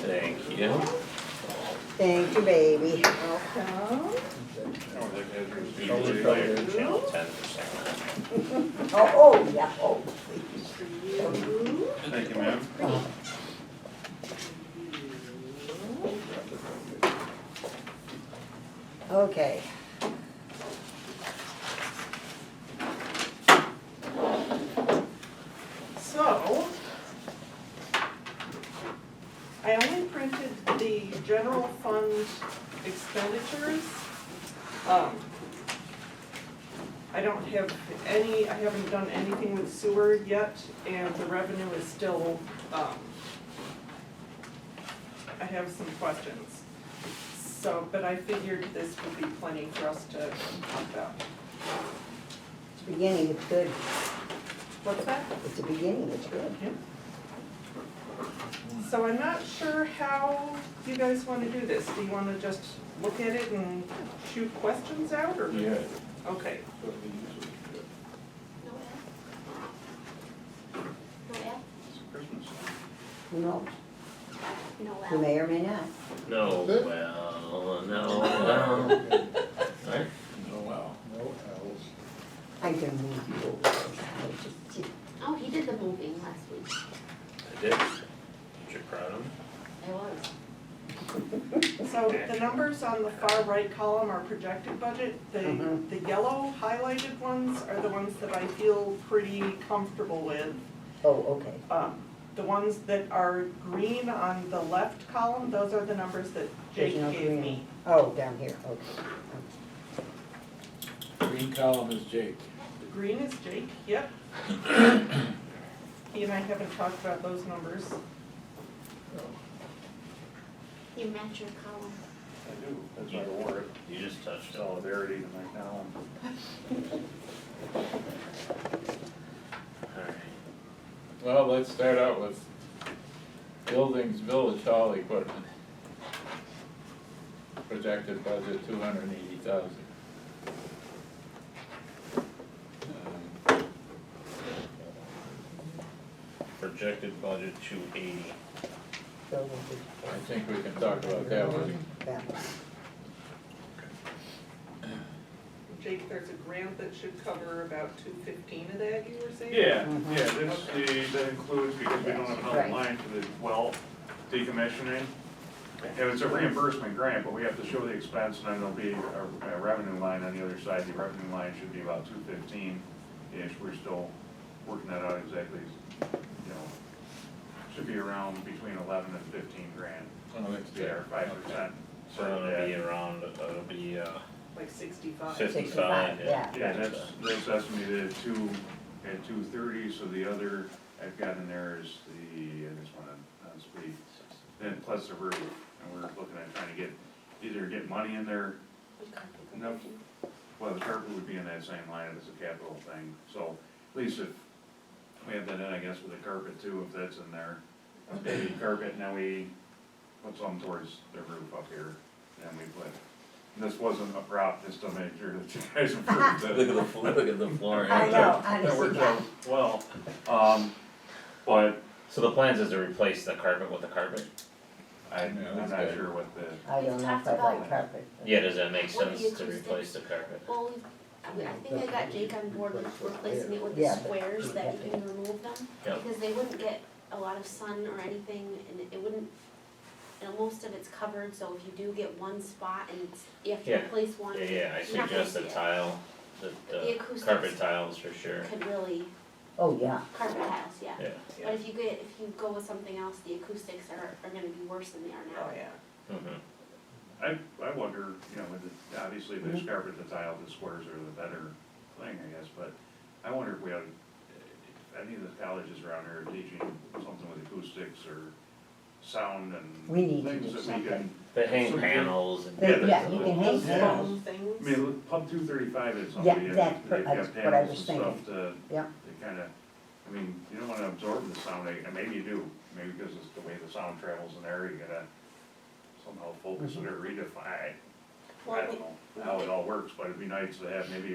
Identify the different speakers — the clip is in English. Speaker 1: Yeah.
Speaker 2: Thank you, baby.
Speaker 3: Welcome.
Speaker 1: Channel ten percent.
Speaker 2: Oh, oh, yeah, oh, please.
Speaker 4: Thank you, ma'am.
Speaker 2: Okay.
Speaker 3: So, I only printed the general fund expenditures. Um, I don't have any, I haven't done anything with sewer yet, and the revenue is still, um, I have some questions. So, but I figured this would be plenty for us to talk about.
Speaker 2: It's beginning, it's good.
Speaker 3: What's that?
Speaker 2: It's a beginning, it's good.
Speaker 3: So I'm not sure how you guys wanna do this, do you wanna just look at it and shoot questions out, or?
Speaker 4: Yeah.
Speaker 3: Okay,
Speaker 5: No F? No F?
Speaker 4: Christmas.
Speaker 2: Who knows?
Speaker 5: No F.
Speaker 2: Who may or may not.
Speaker 1: No, well, no, well. Right?
Speaker 4: Oh, wow.
Speaker 2: I can move you over. I just-
Speaker 5: Oh, he did the moving last week.
Speaker 1: I did. You're proud of me?
Speaker 5: I was.
Speaker 3: so the numbers on the far right column are projected budget, the,
Speaker 2: Mhm.
Speaker 3: the yellow highlighted ones are the ones that I feel pretty comfortable with.
Speaker 2: Oh, okay.
Speaker 3: Um, the ones that are green on the left column, those are the numbers that Jake
Speaker 2: There's no
Speaker 3: gave
Speaker 2: green.
Speaker 3: me.
Speaker 2: Oh, down here, okay.
Speaker 6: Green column is Jake.
Speaker 3: The green is Jake, yep. He and I haven't talked about those numbers.
Speaker 5: You match your column.
Speaker 4: I do, that's why I wore it,
Speaker 1: You just touched it.
Speaker 4: solidarity to my town.
Speaker 1: Alright.
Speaker 6: Well, let's start out with buildings, village hall equipment. Projected budget two hundred and eighty thousand.
Speaker 1: Projected budget two eighty.
Speaker 2: So we'll
Speaker 6: I think we can talk about that one.
Speaker 2: do that one.
Speaker 3: Jake, there's a grant that should cover about two fifteen of that, you were saying?
Speaker 4: Yeah,
Speaker 2: Mhm.
Speaker 4: yeah, this, the, that includes, because we don't have another
Speaker 2: Right.
Speaker 4: line for the well decommissioning. And it's a reimbursement grant, but we have to show the expense, and then there'll be a- a revenue line on the other side, the revenue line should be about two fifteen-ish, we're still working that out exactly, you know. Should be around between eleven and fifteen grand,
Speaker 6: Oh, that's
Speaker 4: there, five percent.
Speaker 1: So it'll be around, it'll be, uh,
Speaker 3: Like sixty-five.
Speaker 1: Fif- 55, yeah.
Speaker 4: Yeah, that's, that's estimated at two, at two thirty, so the other I've got in there is the, uh, I just wanna, not speak. Then plus the roof, and we're looking at trying to get, either get money in there, no, well, the carpet would be in that same line as the capital thing, so at least if we have that in, I guess, with the carpet too, if that's in there. Maybe carpet, now we put some towards the roof up here, and we put, this wasn't a prop, just to make sure that you guys approved it.
Speaker 1: look at the, fl- look at the floor.
Speaker 2: I know,
Speaker 4: That
Speaker 2: honestly,
Speaker 4: worked out well, um, but
Speaker 1: So the plans is to replace the carpet with the carpet?
Speaker 4: I, I'm
Speaker 6: Yeah, that's
Speaker 4: not
Speaker 6: good.
Speaker 4: sure what the,
Speaker 2: I don't know if I like carpet.
Speaker 1: Yeah, does that make
Speaker 5: What do you
Speaker 1: sense to
Speaker 5: choose
Speaker 1: replace the carpet?
Speaker 5: Well, we- I think I got Jake on board with replacing it with the
Speaker 2: Yeah, but-
Speaker 5: squares that you can remove them.
Speaker 1: Yep.
Speaker 5: Because they wouldn't get a lot of sun or anything and it wouldn't, and most of it's covered, so if you do get one spot and it's, you have to
Speaker 1: Yeah.
Speaker 5: replace one.
Speaker 1: Yeah, yeah, I
Speaker 5: you're not gonna
Speaker 1: suggest the
Speaker 5: see it.
Speaker 1: tile, the,
Speaker 5: The
Speaker 1: the
Speaker 5: acoustics.
Speaker 1: carpet tiles for sure,
Speaker 5: Could really,
Speaker 2: Oh, yeah.
Speaker 5: carpet tiles, yeah.
Speaker 1: yeah.
Speaker 5: But if you get, if you go with something else, the acoustics are, are gonna be worse than they are now.
Speaker 3: Oh, yeah.
Speaker 1: Mhm.
Speaker 4: I, I wonder, you know, with the, obviously the
Speaker 2: Mm-hmm.
Speaker 4: carpet, the tile, the squares are the better thing, I guess, but I wonder if we ought, to- if any of the colleges around here are teaching something with acoustics or sound and
Speaker 2: We need to do
Speaker 4: things that we can,
Speaker 2: something.
Speaker 1: The hang
Speaker 4: So-
Speaker 1: panels and.
Speaker 2: They-
Speaker 4: Yeah,
Speaker 2: Yeah, you can hang
Speaker 4: Yeah.
Speaker 2: them.
Speaker 3: Phone
Speaker 4: I
Speaker 3: things.
Speaker 4: mean, look, Pub two thirty-five is something,
Speaker 2: Yeah,
Speaker 4: they've
Speaker 2: that's per-
Speaker 4: they've got
Speaker 2: that's what I
Speaker 4: panels
Speaker 2: was
Speaker 4: and
Speaker 2: thinking.
Speaker 4: stuff to,
Speaker 2: Yeah.
Speaker 4: they kinda, I mean, you don't wanna absorb the sound, and maybe you do, maybe because it's the way the sound travels in there, you gotta
Speaker 2: Mm-hmm.
Speaker 4: somehow focus it or redefine, I
Speaker 3: Well, I
Speaker 4: don't
Speaker 3: think-
Speaker 4: know how it all works, but it'd be nice to have maybe a